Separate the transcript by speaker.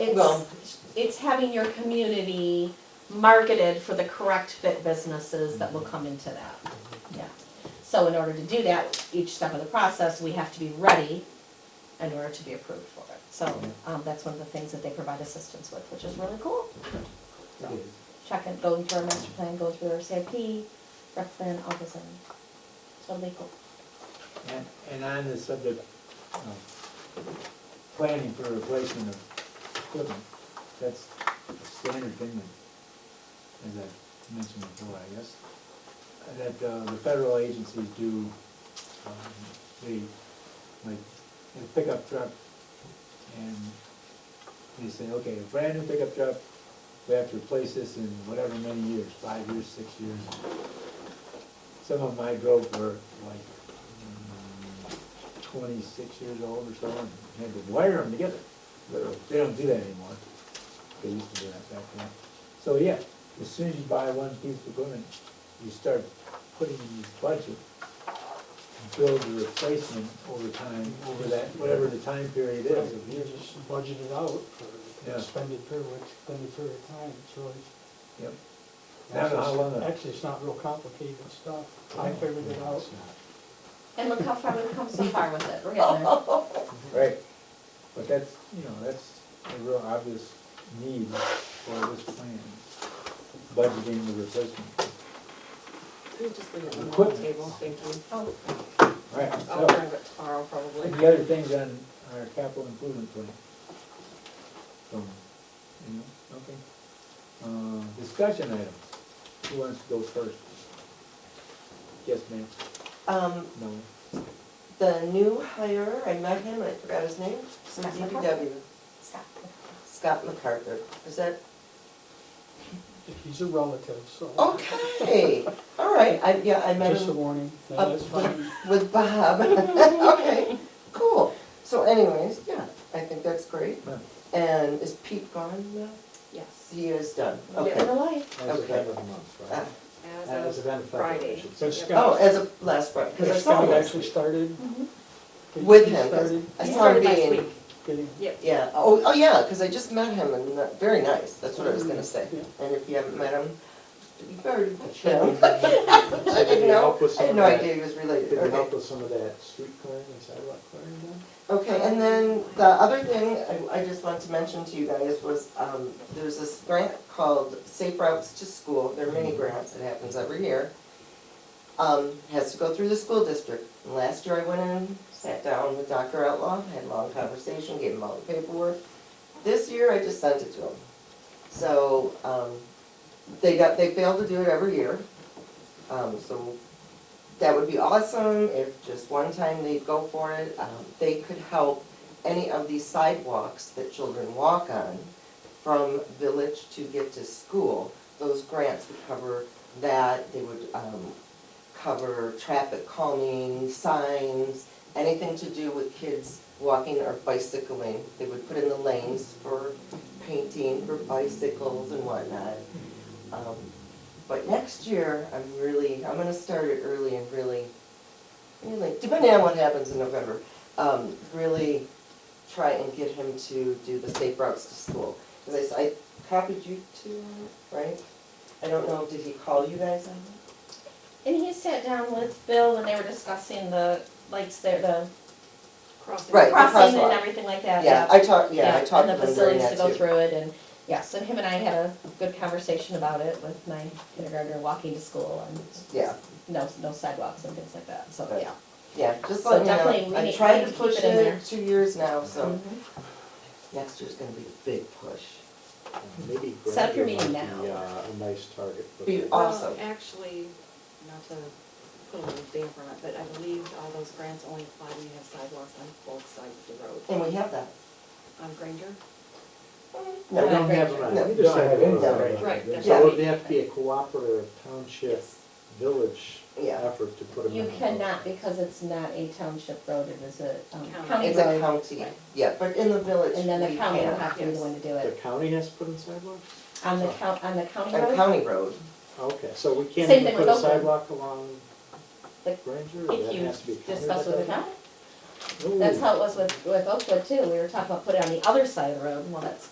Speaker 1: It's,
Speaker 2: Well-
Speaker 1: it's having your community marketed for the correct fit businesses that will come into that, yeah. So in order to do that, each step of the process, we have to be ready in order to be approved for it. So, um, that's one of the things that they provide assistance with, which is really cool. So, Check it, going through our master plan, go through our CIP, rep plan, all those things. Totally cool.
Speaker 3: And, and on the subject of planning for replacement of equipment, that's a standard thing that, as I mentioned before, I guess, that uh, the federal agencies do, um, they, like, a pickup truck, and they say, okay, a brand new pickup truck, we have to replace this in whatever many years, five years, six years. Some of my drove were like mm, twenty-six years old or so, and had to wire them together. Literally, They don't do that anymore. They used to do that back then. So, yeah, as soon as you buy one piece of equipment, you start putting in this budget. and Build your replacement over time, over that, whatever the time period
Speaker 4: Right,
Speaker 3: is, of
Speaker 4: you
Speaker 3: years.
Speaker 4: just budget it out for
Speaker 3: Yeah.
Speaker 4: an extended period, extended period of time, so it's.
Speaker 3: Yep. I don't know how long that-
Speaker 4: Actually, it's not real complicated stuff, I figured it out.
Speaker 1: And look how far we've come so far with it, we're getting there.
Speaker 3: Right, but that's, you know, that's a real obvious need for this plan, budgeting the replacement.
Speaker 5: We just leave it on the
Speaker 3: Quick.
Speaker 5: table, thank you.
Speaker 1: Oh,
Speaker 3: All right,
Speaker 6: Oh,
Speaker 5: I'll
Speaker 3: so,
Speaker 5: bring it tomorrow probably.
Speaker 3: and the other things on our capital improvement plan. So, you know, okay. Uh, discussion items, who wants to go first? Yes, ma'am,
Speaker 6: Um,
Speaker 3: no,
Speaker 6: the new hire, I met him, I forgot his name, from
Speaker 1: Scott
Speaker 6: DPW,
Speaker 1: stop.
Speaker 6: Scott MacArthur, is that?
Speaker 4: He's a relative, so.
Speaker 6: Okay, all right, I, yeah, I met
Speaker 4: Oh. Just a
Speaker 6: him
Speaker 4: warning,
Speaker 6: up
Speaker 4: that is fine.
Speaker 6: with- with Bob, okay, cool. So anyways, yeah, I think that's great.
Speaker 3: no.
Speaker 6: And is Pete gone now?
Speaker 5: Yes.
Speaker 6: He is done,
Speaker 5: Yeah.
Speaker 1: Get in the
Speaker 6: okay.
Speaker 1: light.
Speaker 7: As of
Speaker 6: Okay.
Speaker 7: end of the month,
Speaker 6: Uh,
Speaker 7: right?
Speaker 5: As of
Speaker 7: end of February,
Speaker 5: Friday.
Speaker 7: I should
Speaker 4: So
Speaker 7: say.
Speaker 5: Yep.
Speaker 4: Scott,
Speaker 6: Oh, as of last Friday, because I saw him
Speaker 4: Scott actually
Speaker 6: last week
Speaker 4: started. He-
Speaker 6: Mm-hmm. with
Speaker 4: he
Speaker 6: him, 'cause
Speaker 4: started
Speaker 6: I saw him
Speaker 5: He started last
Speaker 6: being,
Speaker 5: week,
Speaker 4: getting-
Speaker 5: yep.
Speaker 6: yeah, oh, oh, yeah, because I just met him and, uh, very nice, that's what I was
Speaker 7: Mm-hmm.
Speaker 6: gonna say.
Speaker 4: Yeah.
Speaker 6: And if you haven't met him, you better meet him. I didn't know, I had no idea he was related,
Speaker 7: Did you help
Speaker 6: okay.
Speaker 7: with some of that street clearing and sidewalk clearing done?
Speaker 6: Okay, and then the other thing I, I just wanted to mention to you guys was, um, there's this grant called Safe Routes to School, they're mini grants, it happens every year. Um, has to go through the school district, and last year I went in, sat down with Dr. Outlaw, had a long conversation, gave him all the paperwork. This year I just sent it to him. So, um, they got, they fail to do it every year. Um, so that would be awesome if just one time they'd go for it. Um, they could help any of these sidewalks that children walk on from village to get to school. Those grants would cover that, they would, um, cover traffic calming, signs, anything to do with kids walking or bicycling. They would put in the lanes for painting, for bicycles and whatnot. Um, but next year, I'm really, I'm gonna start it early and really, really, depending on what happens in November, um, really try and get him to do the safe routes to school. Cause I s- I, copied you two, right? I don't know, did he call you guys on that?
Speaker 1: And he sat down with Bill when they were discussing the lights there, the
Speaker 5: Crossing.
Speaker 6: Right. the
Speaker 1: crossing and
Speaker 6: crosswalk.
Speaker 1: everything like that.
Speaker 6: Yeah, I talked, yeah, I talked
Speaker 1: And
Speaker 6: to
Speaker 1: the
Speaker 6: him during
Speaker 1: facilities
Speaker 6: that
Speaker 1: to
Speaker 6: too.
Speaker 1: go through it and, yes, and him and I had a good conversation about it with my kindergartner walking to school and
Speaker 6: Yeah,
Speaker 1: no, no sidewalks and things like that, so,
Speaker 6: Right.
Speaker 1: yeah.
Speaker 6: yeah, just
Speaker 1: So
Speaker 6: let me
Speaker 1: definitely we
Speaker 6: know. I
Speaker 1: need- we
Speaker 6: tried
Speaker 1: need
Speaker 6: to
Speaker 1: to keep
Speaker 6: push
Speaker 1: it in there.
Speaker 6: it two years now, so
Speaker 1: Mhm.
Speaker 6: next year's gonna be a big push.
Speaker 7: Maybe
Speaker 1: Set up your
Speaker 7: Grandview might
Speaker 1: meeting
Speaker 7: be,
Speaker 1: now.
Speaker 7: uh, A nice target for
Speaker 6: Be
Speaker 7: that.
Speaker 5: Well,
Speaker 6: awesome.
Speaker 5: Actually, not to put a little damper on it, but I believe all those grants only apply when you have sidewalks on both sides of the road.
Speaker 6: And we have that.
Speaker 5: On Granger?
Speaker 6: No,
Speaker 7: We don't have it on
Speaker 6: No.
Speaker 7: either side of the
Speaker 6: No.
Speaker 7: road.
Speaker 5: Right, there's
Speaker 7: So it
Speaker 5: not.
Speaker 7: would have to be a cooperative township, village
Speaker 6: Yeah.
Speaker 7: effort to put them in.
Speaker 1: You cannot, because it's not a township road, it is a um,
Speaker 5: County.
Speaker 1: county
Speaker 6: It's a
Speaker 1: road.
Speaker 6: county, yeah, but in the village,
Speaker 1: And then the
Speaker 6: we
Speaker 1: county will
Speaker 6: can.
Speaker 1: have to be the one to do
Speaker 7: The
Speaker 1: it,
Speaker 7: county has to put in sidewalks?
Speaker 1: on the count, on the county
Speaker 6: A
Speaker 1: road,
Speaker 6: county road,
Speaker 7: Okay, so we can't
Speaker 1: Same
Speaker 7: even
Speaker 1: thing
Speaker 7: put
Speaker 1: with
Speaker 7: a
Speaker 1: Oakland.
Speaker 7: sidewalk along
Speaker 1: Like,
Speaker 7: Granger, or that has to
Speaker 1: if
Speaker 7: be
Speaker 1: you
Speaker 7: county?
Speaker 1: discuss
Speaker 7: road?
Speaker 1: with the county.
Speaker 7: Ooh.
Speaker 1: That's how it was with, with Oakwood too, we were talking about putting it on the other side of the road, well, that's